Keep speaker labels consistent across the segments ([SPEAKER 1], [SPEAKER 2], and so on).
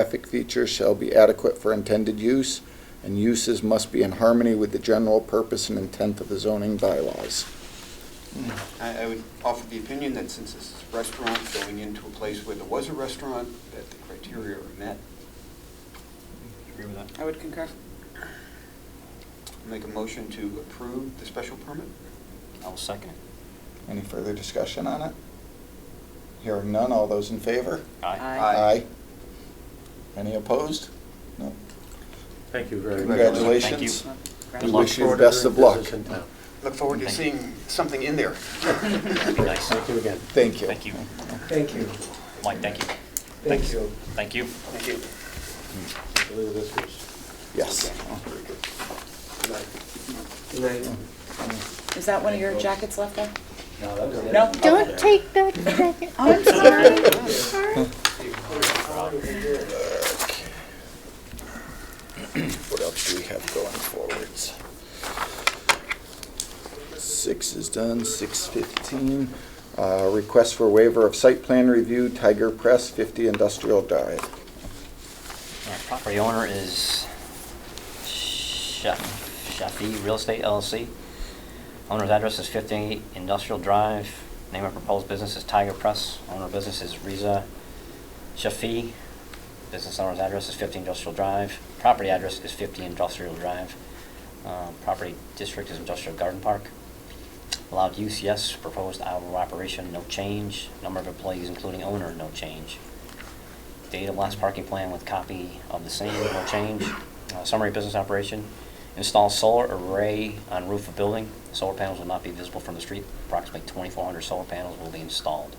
[SPEAKER 1] Traffic features shall be adequate for intended use, and uses must be in harmony with the general purpose and intent of the zoning bylaws.
[SPEAKER 2] I, I would offer the opinion that since this is a restaurant, going into a place where there was a restaurant, that the criteria are met.
[SPEAKER 3] Agree with that?
[SPEAKER 4] I would concur.
[SPEAKER 2] Make a motion to approve the special permit?
[SPEAKER 3] I'll second it.
[SPEAKER 1] Any further discussion on it? Hearing none, all those in favor?
[SPEAKER 3] Aye.
[SPEAKER 2] Aye.
[SPEAKER 1] Any opposed? No.
[SPEAKER 5] Thank you very much.
[SPEAKER 1] Congratulations.
[SPEAKER 3] Thank
[SPEAKER 1] We
[SPEAKER 3] Good
[SPEAKER 1] wish
[SPEAKER 3] luck.
[SPEAKER 1] you the best of luck.
[SPEAKER 5] Business in town.
[SPEAKER 2] Look forward to
[SPEAKER 3] Thank
[SPEAKER 2] seeing something in there.
[SPEAKER 3] That'd be nice.
[SPEAKER 5] Thank you again.
[SPEAKER 1] Thank you.
[SPEAKER 3] Thank you.
[SPEAKER 6] Thank you.
[SPEAKER 3] Mike, thank you.
[SPEAKER 6] Thank you.
[SPEAKER 3] Thank you.
[SPEAKER 2] Thank you.
[SPEAKER 5] I believe this was,
[SPEAKER 1] Yes.
[SPEAKER 6] Good night.
[SPEAKER 4] Is that one of your jackets left there?
[SPEAKER 5] no, that was it.
[SPEAKER 4] No?
[SPEAKER 7] Don't take that jacket.
[SPEAKER 4] I'm sorry.
[SPEAKER 1] What else do we have going forwards? Six is done, six fifteen. Uh, request for waiver of site plan review, Tiger Press, fifty Industrial Drive.
[SPEAKER 3] Our Property owner is Chef, Chefy Real Estate LLC. Owner's address is 58 Industrial Drive. Name of proposed business is Tiger Press. Owner of business is Riza Shafi. Business owner's address is 50 Industrial Drive. Property address is 50 Industrial Drive. Uh, Property district is Industrial Garden Park. Allowed use, yes. Proposed hour of operation, no change. Number of employees, including owner, no change. Date of last parking plan with copy of the same, no change. Uh, Summary business operation, install solar array on roof of building. Solar panels will not be visible from the street. Approximately 2,400 solar panels will be installed.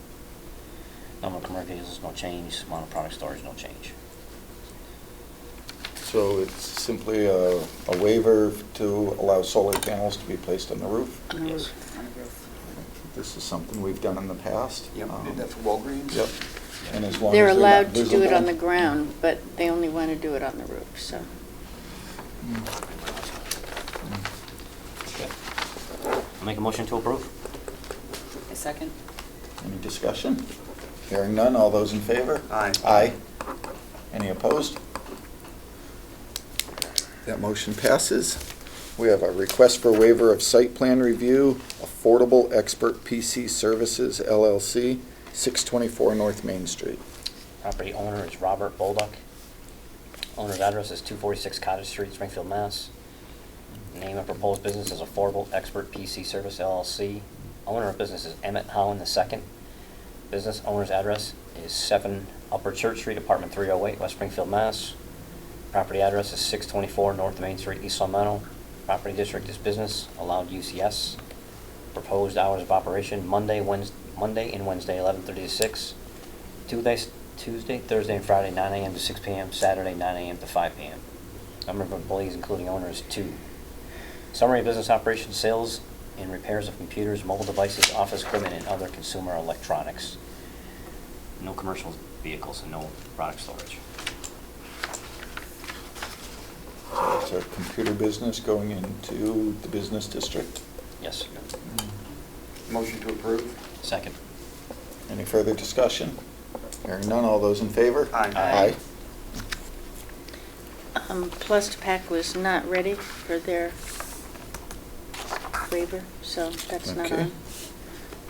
[SPEAKER 3] Number of commercial vehicles, no change. Amount of product storage, no change.
[SPEAKER 1] So it's simply a, a waiver to allow solar panels to be placed on the roof.
[SPEAKER 4] On the
[SPEAKER 3] Yes.
[SPEAKER 4] roof, on the roof.
[SPEAKER 1] This is something we've done in the past.
[SPEAKER 2] Yep,
[SPEAKER 1] Um,
[SPEAKER 2] did that for Walgreens?
[SPEAKER 1] Yep. And as long as
[SPEAKER 7] They're
[SPEAKER 1] not
[SPEAKER 7] allowed to do it
[SPEAKER 1] visible.
[SPEAKER 7] on the ground, but they only want to do it on the roof, so.
[SPEAKER 3] Make a motion to approve?
[SPEAKER 4] A second?
[SPEAKER 1] Any discussion? Hearing none, all those in favor?
[SPEAKER 2] Aye.
[SPEAKER 1] Aye. Any opposed? That motion passes. We have a request for waiver of site plan review, Affordable Expert PC Services LLC, 624 North Main Street.
[SPEAKER 3] Property owner is Robert Bolduc. Owner's address is 246 Cottage Street, Springfield, Mass. Name of proposed business is Affordable Expert PC Service LLC. Owner of business is Emmett Holland II. Business owner's address is 7 Upper Church Street, Apartment 308, West Springfield, Mass. Property address is 624 North Main Street, East Long Property district is business, allowed use yes. Proposed hours of operation, Monday, Wednesday, Monday and Wednesday, 11:30 to 6. Tuesday, Tuesday, Thursday, and Friday, 9 AM to 6 PM, Saturday, 9 AM to 5 PM. Number of employees, including owners, two. Summary of business operations, sales and repairs of computers, mobile devices, office equipment, and other consumer electronics. No commercial vehicles and no product storage.
[SPEAKER 1] So It's a computer business going into the business district.
[SPEAKER 3] Yes.
[SPEAKER 2] Motion to approve?
[SPEAKER 3] Second.
[SPEAKER 1] Any further discussion? Hearing none, all those in favor?
[SPEAKER 2] Aye.
[SPEAKER 1] Aye.
[SPEAKER 3] Aye.
[SPEAKER 7] Um, Plus, Pack was not ready for their waiver, so that's not
[SPEAKER 1] Okay.
[SPEAKER 7] on.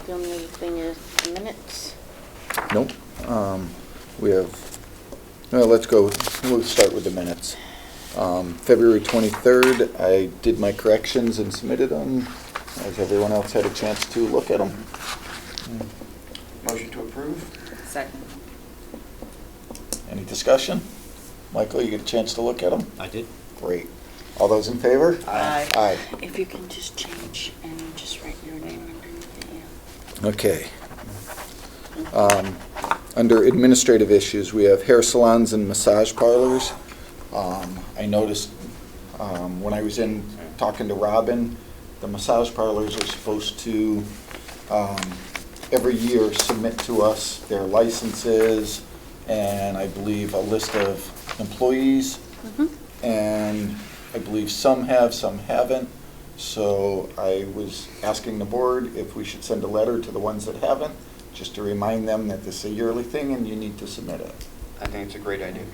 [SPEAKER 7] The only other thing is the minutes.
[SPEAKER 1] Nope. Um, We have, well, let's go, we'll start with the minutes. Um, February 23rd, I did my corrections and submitted them. Has everyone else had a chance to look at them?
[SPEAKER 2] Motion to approve?
[SPEAKER 4] Second.
[SPEAKER 1] Any discussion? Michael, you get a chance to look at them?
[SPEAKER 3] I did.
[SPEAKER 1] Great. All those in favor?
[SPEAKER 4] Aye.
[SPEAKER 1] Aye.
[SPEAKER 7] If you can just change and just write your name underneath it, yeah.
[SPEAKER 1] Okay. Um, Under administrative issues, we have hair salons and massage parlors. Um, I noticed um, when I was in talking to Robin, the massage parlors are supposed to, um, every year, submit to us their licenses and I believe a list of employees.
[SPEAKER 7] Mm-hmm.
[SPEAKER 1] And I believe some have, some haven't. So I was asking the board if we should send a letter to the ones that haven't, just to remind them that this is a yearly thing and you need to submit it.
[SPEAKER 2] I think it's a great idea.